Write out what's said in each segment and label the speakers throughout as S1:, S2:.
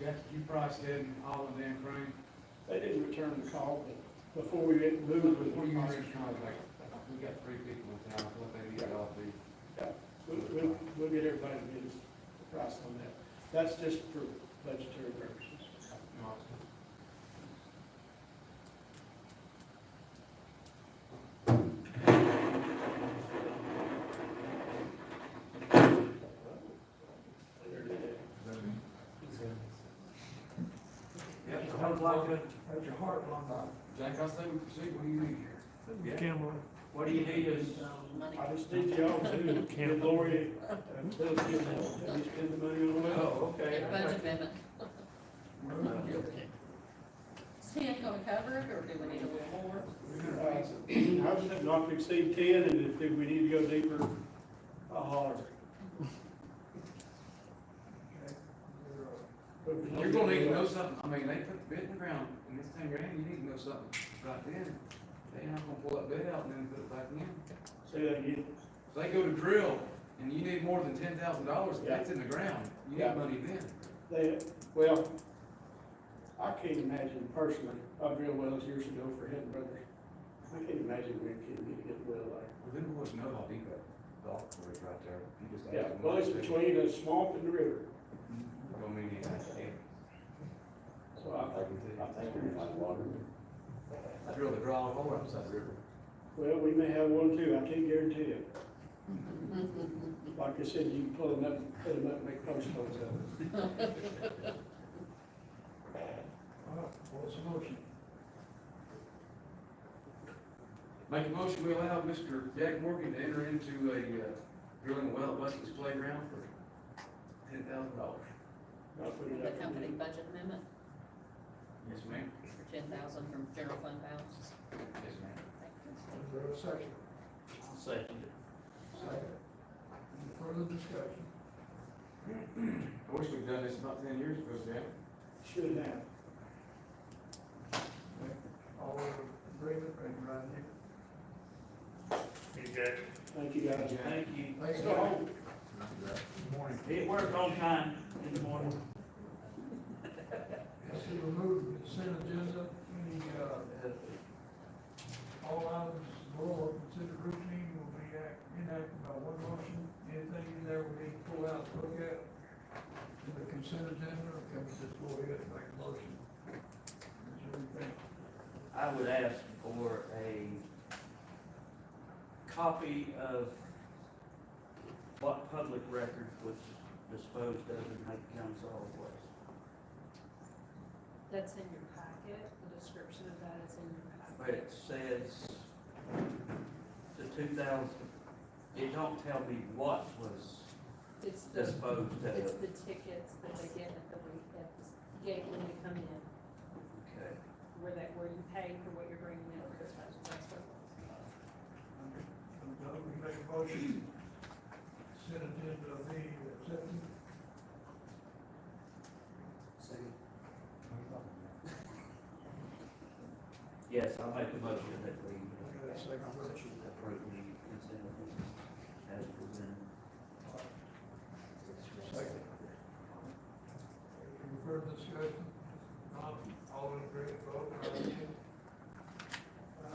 S1: That, you priced that in all of them, Crane,
S2: They didn't return the call before we moved with
S1: before
S2: the
S1: you were in
S2: prices.
S1: contact, we got three people in town, what they need to all be.
S2: We'll, we'll, we'll get everybody to get us the price on that. That's just for budgetary purposes.
S1: Yeah,
S3: I would like to, that's your heart, on
S1: Jack, I say we proceed, what do you need here?
S3: the camera.
S4: What do you need is,
S2: I just need y'all to give Lori, uh, tell us, you know, have you spent the money on that?
S4: oh, okay.
S5: Budget amendment.
S4: Uh,
S5: Is ten gonna cover it, or do we need a little more?
S2: Uh, I would say not to exceed ten, and if we need to go deeper, I'll holler.
S1: You're gonna need to know something, I mean, they put the bid in the ground, and it's ten grand, you need to know something right then. They not gonna pull that bid out and then put it back in.
S2: Say that again.
S1: If they go to drill, and you need more than ten thousand dollars,
S2: Yeah.
S1: that's in the ground, you
S2: Yeah.
S1: need money then.
S2: They, well, I can't imagine personally, I drilled wells years ago for Hidden Brothers. I can't imagine we can get a good well there.
S1: Well, then what's no Home Depot golf course right there? You just
S2: Yeah,
S1: add
S2: well, it's
S1: one.
S2: between the swamp and the river,
S1: Don't need any idea.
S2: so I think, I think we're fine water.
S1: I drilled a draw hole outside the river.
S2: Well, we may have one too, I can't guarantee it. Like I said, you can pull them up, put them up, and make post holes out of it.
S3: All right, what's the motion?
S1: Make a motion, we allow Mr. Jack Morgan to enter into a, uh, drilling well at Weston's Playground for ten thousand dollars.
S2: I'll put it
S5: The
S2: up.
S5: company budget amendment
S1: Yes, ma'am.
S5: for ten thousand from general fund balance.
S1: Yes, ma'am.
S3: Is there a second?
S4: Second.
S3: Second. Any further discussion?
S1: I wish we'd done this about ten years ago, Jack.
S2: Should have.
S3: All in agreement, raise your right hand.
S2: Thank you, guys.
S4: Thank you.
S3: Thank
S2: Let's go home.
S3: Good morning.
S4: It worked on time in the morning.
S3: This is removed from the consent agenda, any, uh, all items below are considered routine will be act, enacted by one motion. Anything in there we need to pull out, look at, in the consent agenda, or can we just go ahead and make a motion? Is there anything?
S4: I would ask for a copy of what public record was disposed of in Hake County Solid Waste.
S6: That's in your packet, the description of that is in your
S4: But
S6: packet.
S4: it says the two thousand, it don't tell me what was
S6: It's the,
S4: disposed
S6: it's
S4: of.
S6: the tickets that they get at the, week- at the gate when you come in,
S4: Okay.
S6: where that, where you pay for what you're bringing in for dispatch, that's what it was.
S3: So, we make a motion, consent agenda be accepted.
S4: Yes, I'll make a motion that we uh,
S3: I got a second motion.
S4: approve the consent agenda as presented.
S3: Second. Any further discussion? Not all in agreement, vote aye.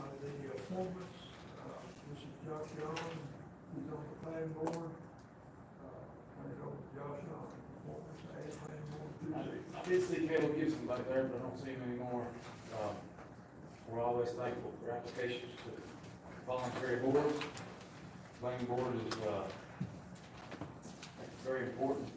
S3: Uh, the appointments, uh, this is Josh Young, who's on the planning board. Uh, Turn it over to Josh Young, appointments, add planning board Tuesday.
S1: I did see Caleb Gibson back there, but I don't see him anymore. Um, We're always thankful for applications to voluntary boards. Planning board is, uh, very important